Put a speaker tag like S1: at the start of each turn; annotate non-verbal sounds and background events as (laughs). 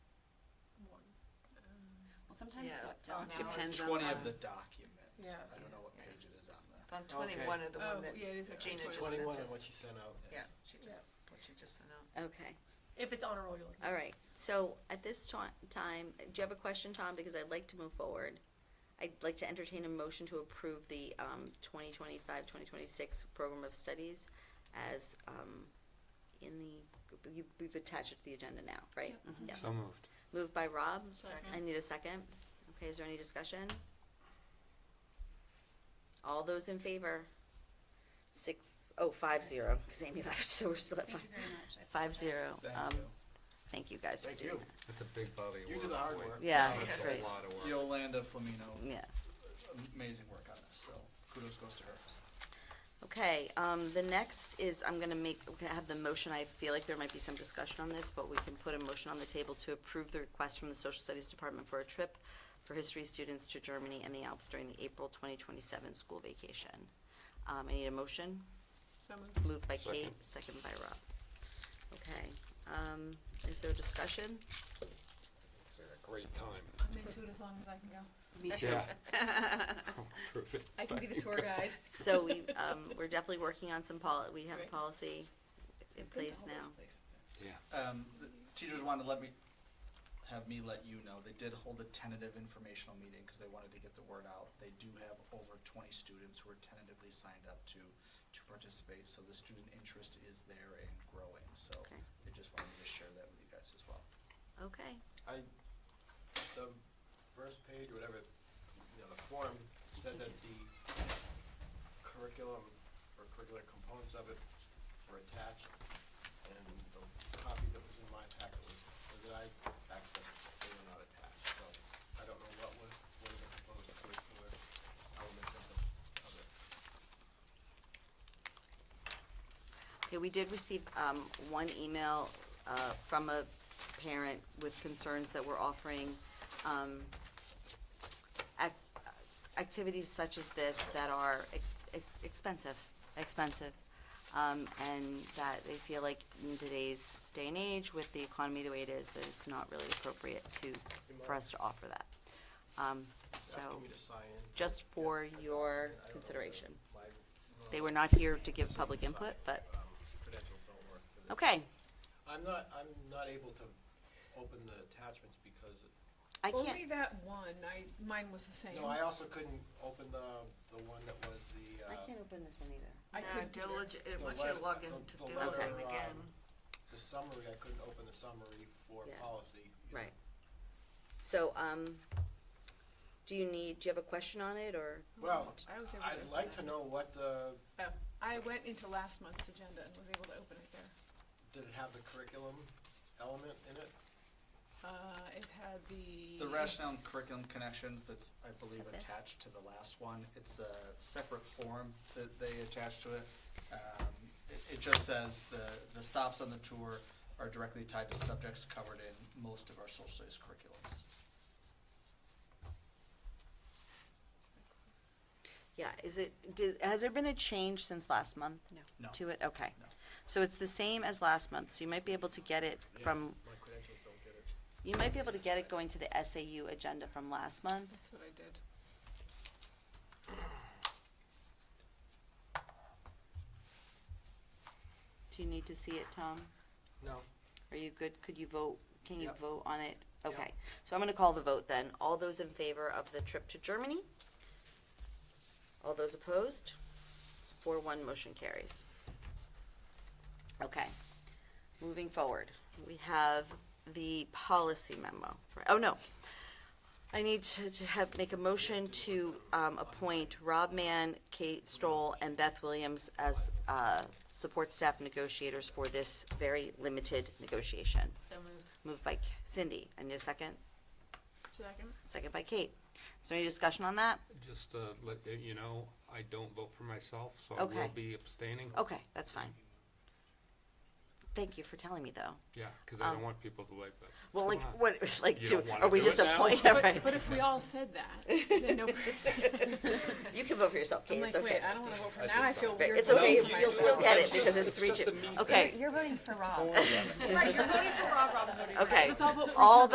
S1: Well, sometimes
S2: Yeah,
S1: what,
S2: on
S1: doc-
S2: ours.
S1: depends
S3: Page
S1: on.
S3: twenty
S1: the-
S3: of the document.
S4: Yeah.
S3: I don't know what page it is on the.
S2: It's on twenty-one of the
S4: Oh,
S2: one that
S4: yeah, it is actually
S2: Gina just sent us.
S5: 21 and what you sent out.
S2: Yeah, she just,
S4: Yeah.
S2: what she just sent out.
S1: Okay,
S4: If it's on a roll, you'll.
S1: all right. So at this ti- time, do you have a question, Tom? Because I'd like to move forward. I'd like to entertain a motion to approve the, um, 2025-2026 program of studies as, um, in the, you, we've attached it to the agenda now, right? Mm-hmm. Yeah.
S6: So moved.
S1: Moved by Rob.
S2: Second.
S1: I need a second. Okay, is there any discussion? All those in favor? Six, oh, five zero, because Amy left, so we're still at five.
S7: Thank you very much. I
S1: Five
S7: apologize.
S1: zero.
S3: Thank
S1: Um,
S3: you.
S1: Thank you guys for
S5: Thank
S1: doing
S5: you.
S1: that.
S6: That's a big body of
S5: You
S6: work.
S5: do the hard
S6: boy.
S5: work.
S1: Yeah,
S6: That's
S1: it's
S6: a
S1: great.
S6: lot of work.
S3: Yolanda Flamino,
S1: Yeah.
S3: amazing work on this, so kudos goes to her.
S1: Okay, um, the next is, I'm gonna make, we have the motion, I feel like there might be some discussion on this, but we can put a motion on the table to approve the request from the Social Studies Department for a trip for history students to Germany and the Alps during the April twenty twenty-seven school vacation. Um, I need a motion,
S4: So moved.
S1: moved by
S6: Second.
S1: Kate, second by Rob. Okay, um, is there discussion?
S6: It's a great time.
S4: I'm into it as long as I can go.
S1: Me
S6: (laughs) Yeah. Oh, I'll prove it
S4: I can be
S6: if
S4: the
S6: I
S4: tour
S6: go.
S4: guide.
S1: So we, um, we're definitely working on some poli, we have a
S4: Right.
S1: policy in place now.
S6: Yeah.
S3: Um, the teachers wanted to let me, have me let you know, they did hold a tentative informational meeting because they wanted to get the word out. They do have over twenty students who are tentatively signed up to, to participate, so the student interest is there and growing, so
S1: Okay.
S3: they just wanted me to share that with you guys as well.
S1: Okay,
S5: I, the first page, or whatever, you know, the form said that the curriculum or curricular components of it were attached, and the copy that was in my packet was, or that I accessed, they were not attached, so I don't know what was, what the proposed curricular elements of it, of it.
S1: Okay, we did receive um, one email uh, from a parent with concerns that we're offering um, ac- activities such as this that are ex- ex- expensive, expensive. um, And that they feel like in today's day and age, with the economy the way it is, that it's not really appropriate to, for us to offer that. Um, So,
S5: Asking me to sign in.
S1: just for
S5: Yeah, I don't-
S1: your
S5: I don't know that
S1: consideration.
S5: my-
S1: they were not here to give public input, but,
S5: Um, Credentials don't work for this.
S1: okay,
S5: I'm not, I'm not able to open the attachments because,
S1: I can't.
S4: Only that one, I, mine was the same.
S5: no, I also couldn't open the, the one that was the, uh,
S1: I can't open this one either.
S4: I
S2: No,
S4: couldn't either.
S2: diligent, it
S5: The
S2: wants you to
S5: letter-
S2: log
S5: the-
S2: in
S5: the
S2: to
S5: letter,
S2: diligent again.
S5: um, the summary, I couldn't open the summary for
S1: Yeah.
S5: policy.
S1: Right. So, um, do you need, do you have a question on it, or?
S5: Well,
S4: I was able to
S5: I'd
S4: open
S5: like
S4: that.
S5: to know what the,
S4: Oh, I went into last month's agenda and was able to open it there.
S5: did it have the curriculum element in it?
S4: Uh, it had the.
S3: The rationale and curriculum connections that's, I believe,
S1: Got this.
S3: attached to the last one, it's a separate form that they attach to it. Um, It, it just says the, the stops on the tour are directly tied to subjects covered in most of our social studies curriculums.
S1: Yeah, is it, did, has there been a change since last month?
S3: No.
S1: To it, okay.
S3: No.
S1: So it's the same as last month, so you might be able to get it from,
S5: My credentials don't get it.
S1: you might be able to get it going to the SAU agenda from last month.
S4: That's what I did.
S1: Do you need to see it, Tom?
S5: No.
S1: Are you good? Could you vote? Can you
S5: Yep.
S1: vote on it?
S5: Yep.
S1: Okay, so I'm gonna call the vote then. All those in favor of the trip to Germany? All those opposed? Four one, motion carries. Okay, moving forward, we have the policy memo. Oh, no. I need to, to have, make a motion to, um, appoint Rob Mann, Kate Stoll, and Beth Williams as, uh, support staff negotiators for this very limited negotiation.
S2: So moved.
S1: Moved by Cindy. I need a second.
S4: Second?
S1: (laughs) Second by Kate. Is there any discussion on that?
S6: Just, uh, let, uh, you know, I don't vote for myself, so I will
S1: Okay.
S6: be abstaining.
S1: Okay, that's fine. Thank you for telling me, though.
S6: Yeah, because I
S1: Um,
S6: don't want people to like that.
S1: Well, like,
S6: Come on.
S1: what, (laughs) like,
S6: You
S1: do,
S6: don't wanna
S1: are we
S6: do
S1: just
S6: it now?
S4: (laughs)
S1: appointing?
S4: But- But if we all said that,
S1: (laughs)
S4: then (laughs) nobody.
S1: You can vote for yourself,
S4: I'm
S1: Kate.
S4: like,
S1: It's
S4: wait,
S1: okay.
S4: I don't wanna vote for,
S5: I
S4: now I
S5: just
S4: feel
S5: don't.
S4: weird.
S1: It's
S4: voting
S1: okay.
S4: for
S1: You'll
S4: myself.
S1: still get
S6: No,
S1: it
S6: it's
S1: because
S6: just-
S1: it's
S6: it's
S1: three
S6: just
S1: two.
S6: a me
S1: Okay,
S7: (laughs) You're voting for Rob.
S6: Don't worry about it.
S7: Right, you're voting for Rob, Rob's voting for
S1: okay.
S4: Let's all vote for each
S1: All
S4: other.